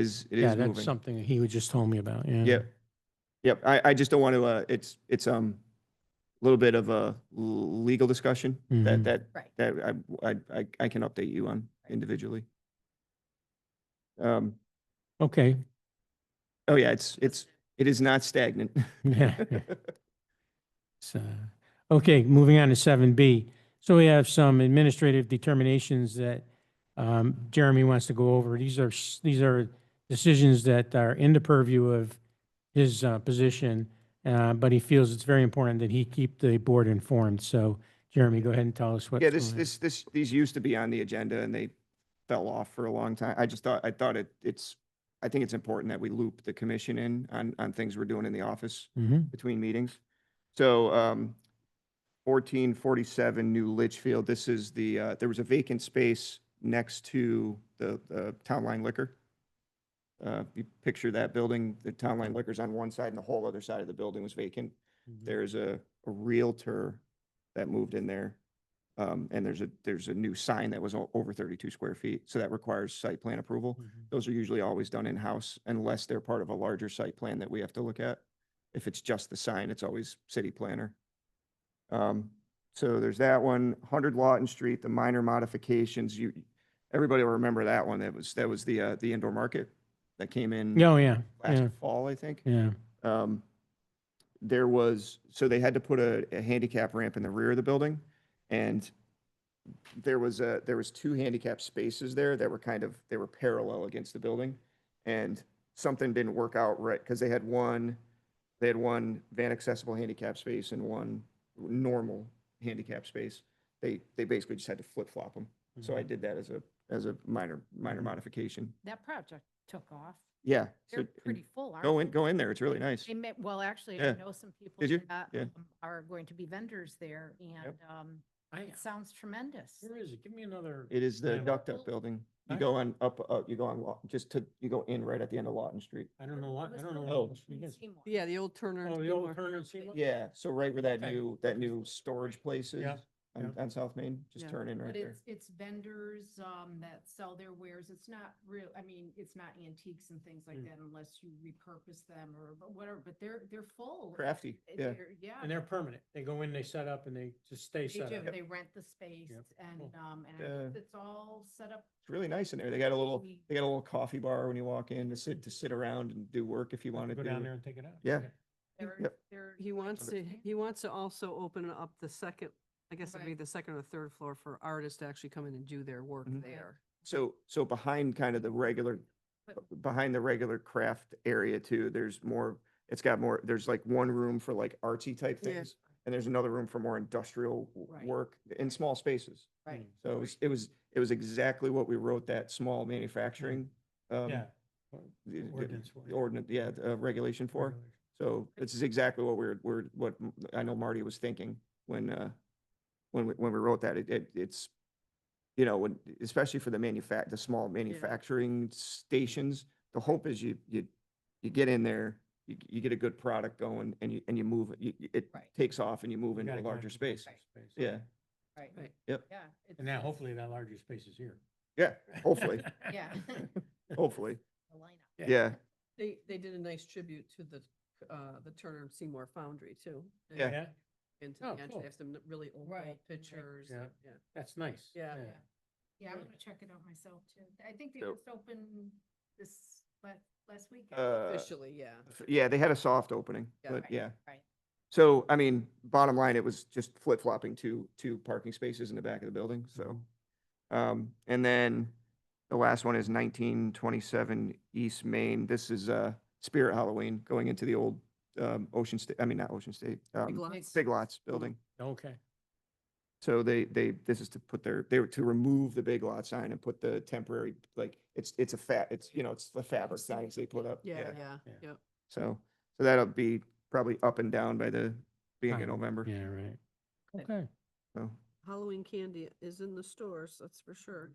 is, it Yeah, is that's moving. something he was just telling me about, yeah. Yep. Yep. I, I just don't want to, uh, it's, it's, um, a little bit of a l- legal discussion that, Mhm. that, Right. that I, I, I, I can update you on individually. Um, Okay, oh yeah, it's, it's, it is not stagnant. yeah. So, okay, moving on to seven B. So we have some administrative determinations that um, Jeremy wants to go over. These are, s- these are decisions that are in the purview of his uh, position, uh, but he feels it's very important that he keep the board informed. So Jeremy, go ahead and tell us what. Yeah, this, this, this, these used to be on the agenda and they fell off for a long time. I just thought, I thought it, it's, I think it's important that we loop the commission in on, on things we're doing in the office. Mhm. between meetings. So um, 1447 New Litchfield, this is the, uh, there was a vacant space next to the uh, Town Line Liquor. Uh, You picture that building, the Town Line Liquor's on one side and the whole other side of the building was vacant. There's a a Realtor that moved in there. um, And there's a, there's a new sign that was o- over 32 square feet, so that requires site plan approval. Mhm. Those are usually always done in-house unless they're part of a larger site plan that we have to look at. If it's just the sign, it's always city planner. Um, So there's that one, 100 Lawton Street, the minor modifications, you, everybody will remember that one. That was, that was the, uh, the indoor market that came in Oh, yeah, yeah, last fall, I think yeah. um, there was, so they had to put a, a handicap ramp in the rear of the building. And there was a, there was two handicap spaces there that were kind of, they were parallel against the building. And something didn't work out right, because they had one, they had one van accessible handicap space and one normal handicap space. They, they basically just had to flip flop them. So Mm-hmm. I did that as a, as a minor, minor Mhm. modification. That project took off. Yeah. so- Mm-hmm. They're and pretty full, aren't Go they? in, go in there. It's really nice. They may, well, actually, Yeah. I know some people Did you? that Yeah. um, are going to be vendors there and um, it sounds tremendous. Where is it? Give me another. It is the Yeah. Duck Duck Building. You Huh? go on up, uh, you go on, Law- just to, you go in right at the end of Lawton Street. I don't know It what, was I don't the know. Oh. what else we Lawton get. Seymour. Yeah, the old Turner. and Oh, the old Seymour. Turner and Seymour? Yeah, so right where that Okay. new, that new storage place is Yeah, on, on South Main, just Yeah. turn in right But there. it's, it's vendors um, that sell their wares. It's not real, I mean, it's not antiques and things like Hmm. Mm. that unless you repurpose them or but whatever, but they're, they're full. Crafty, It- yeah. they're- Yeah. And they're permanent. They go in, they set up, and they just stay They set do, up. they rent the space and, Cool. um, and I Yeah. think it's all set up. It's really nice in there. They got a little, We- they got a little coffee bar when you walk in to sit, to sit around and do work if you wanted Go down there to. and take it out. Yeah. Okay. they're- Yep. they're He wants to, Okay. he wants to also open up the second, I guess it'd be Right. the second or third floor for artists to actually come in and do their work Mm-hmm. Mhm. there. So, so behind kind of the regular, But- behind the regular craft area too, there's more, it's got more, there's like one room for like artsy type Yeah. things. And there's another room for more industrial w- Right. work in small spaces. Right. So it was, it was, it was exactly what we wrote that small manufacturing. um, Yeah. the- the- Ordinance for the it. Ordinance, yeah, the, uh, regulation for. Regulation. So this is exactly what we're, we're, what m- I know Marty was thinking when, uh, when, we- when we wrote that. It, it, it's, you know, when, especially for the manufact, the small manufacturing stations, the hope is you, you, you get in there, you, you get a good product going and you, and you move, it. you, you- it Right. takes off and you move You into gotta a larger concentrate on space. space. Yeah, Right. Right. Yep. Yeah. it's- And now it's hopefully that larger space is here. yeah, hopefully, Yeah. hopefully, the lineup. Yeah. yeah. They, they did a nice tribute to the, uh, the Turner and Seymour Foundry too. and Yeah. Yeah, Into Oh, the entrance, cool. they have some really old Right, old right. pictures. Yeah. and- Yeah. that's nice. Yeah. Yeah. Yeah, I'm Right. gonna check it out myself too. I think they So- just opened this last, last weekend. Uh, Officially, yeah. F- Yeah, they had a soft opening, Yeah. but Right, yeah. right. So, I mean, bottom line, it was just flip flopping two, two parking spaces in the back of the building, so. Um, and then the last one is nineteen twenty-seven East Main. This is, uh, Spirit Halloween going into the old, um, Ocean State, I mean, not Ocean State, Big um, lots. Big Lots building. Okay. So they, they, this is to put their, they were to remove the Big Lot sign and put the temporary, like, it's, it's a fat, it's, you know, it's the fabric signs they put up. Yeah, yeah, Yeah. yeah. So, so that'll be probably up and down by the beginning of Fine. November. Yeah, right. Good. Okay. So, Halloween candy is in the stores, that's for sure.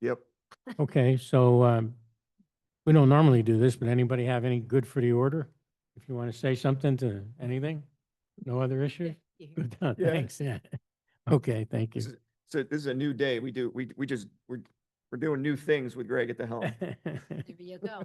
yep. Okay, so um, we don't normally do this, but anybody have any good for the order? If you want to say something to anything? No other issue? Yeah. Good done. Yeah. Thanks, yeah. Okay, thank you. This is- So this is a new day. We do, we, we just, we're, We're doing new things with Greg at the helm. There you go.